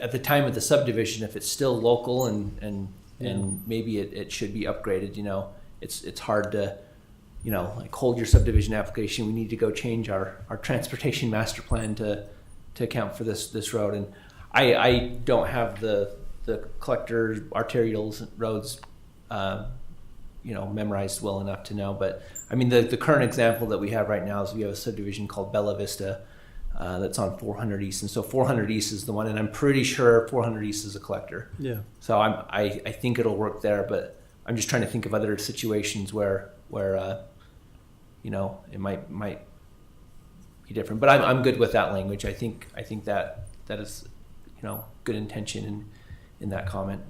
at the time of the subdivision, if it's still local and, and, and maybe it, it should be upgraded, you know, it's, it's hard to, you know, like hold your subdivision application, we need to go change our, our transportation master plan to, to account for this, this road. And I, I don't have the, the collector arterials roads, uh, you know, memorized well enough to know, but I mean, the, the current example that we have right now is we have a subdivision called Bella Vista, uh, that's on 400 East. And so 400 East is the one, and I'm pretty sure 400 East is a collector. Yeah. So I'm, I, I think it'll work there, but I'm just trying to think of other situations where, where, uh, you know, it might, might be different, but I'm, I'm good with that language. I think, I think that, that is, you know, good intention in, in that comment.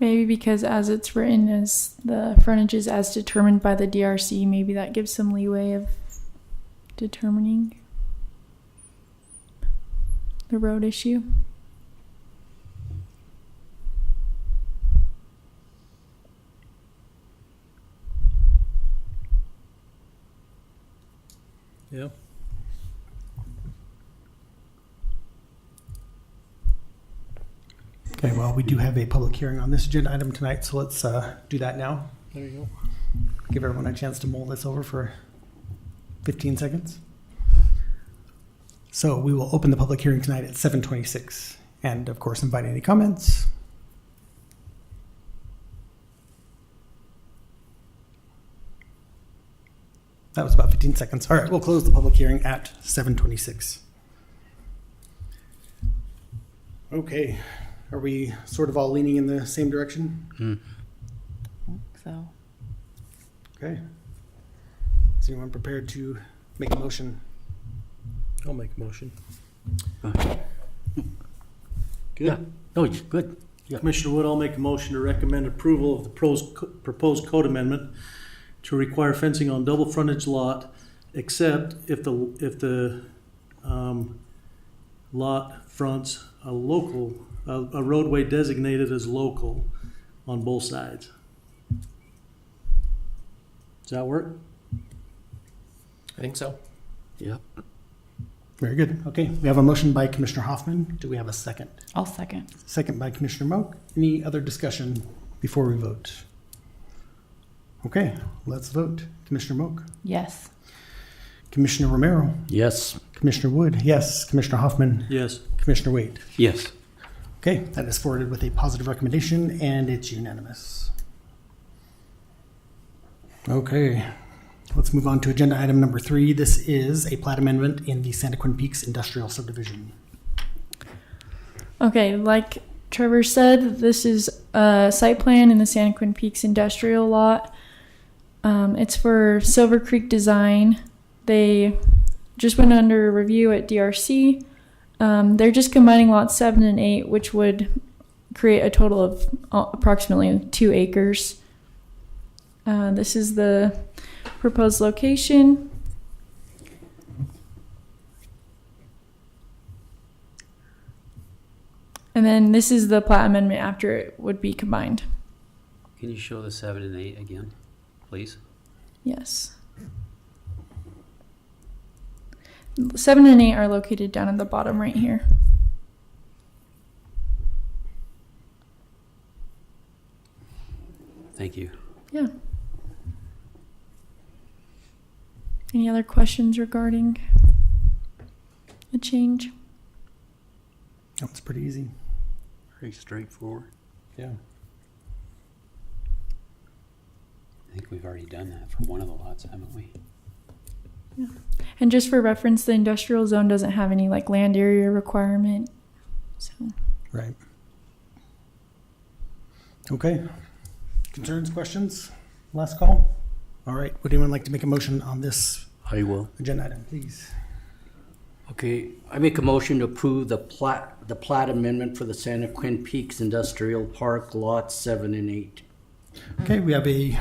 Maybe because as it's written as the frontage is as determined by the DRC, maybe that gives some leeway of determining the road issue. Yeah. Okay, well, we do have a public hearing on this agenda item tonight, so let's uh, do that now. There you go. Give everyone a chance to mull this over for 15 seconds. So we will open the public hearing tonight at 7:26, and of course, invite any comments. That was about 15 seconds. All right, we'll close the public hearing at 7:26. Okay, are we sort of all leaning in the same direction? So, Okay. Is anyone prepared to make a motion? I'll make a motion. Yeah, no, it's good. Commissioner Wood, I'll make a motion to recommend approval of the pros- proposed code amendment to require fencing on double frontage lot, except if the, if the um, lot fronts a local, a a roadway designated as local on both sides. Does that work? I think so. Yep. Very good. Okay, we have a motion by Commissioner Hoffman. Do we have a second? I'll second. Second by Commissioner Moak. Any other discussion before we vote? Okay, let's vote. Commissioner Moak, Yes. Commissioner Romero, Yes. Commissioner Wood, yes. Commissioner Hoffman, Yes. Commissioner Wade. Yes. Okay, that is forwarded with a positive recommendation and it's unanimous. Okay, let's move on to agenda item number three. This is a plat amendment in the Santa Quinn Peaks Industrial Subdivision. Okay, like Trevor said, this is a site plan in the Santa Quinn Peaks industrial lot. Um, it's for Silver Creek Design. They just went under review at DRC. Um, they're just combining lots seven and eight, which would create a total of uh, approximately two acres. Uh, this is the proposed location. And then this is the plat amendment after it would be combined. Can you show the seven and eight again, please? Yes. Seven and eight are located down at the bottom right here. Thank you. Yeah. Any other questions regarding the change? That was pretty easy. Very straightforward. Yeah. I think we've already done that for one of the lots, haven't we? And just for reference, the industrial zone doesn't have any like land area requirement. So Right. Okay. Concerns, questions? Last call? All right, would anyone like to make a motion on this I will. agenda item, please? Okay, I make a motion to approve the plat, the plat amendment for the Santa Quinn Peaks Industrial Park Lots Seven and Eight. Okay, we have a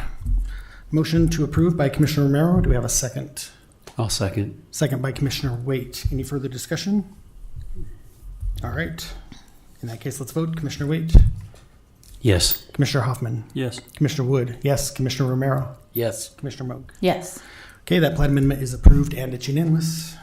motion to approve by Commissioner Romero. Do we have a second? I'll second. Second by Commissioner Waite. Any further discussion? All right. In that case, let's vote. Commissioner Waite, Yes. Commissioner Hoffman, Yes. Commissioner Wood, yes. Commissioner Romero, Yes. Commissioner Moak. Yes. Okay, that plat amendment is approved and it's unanimous.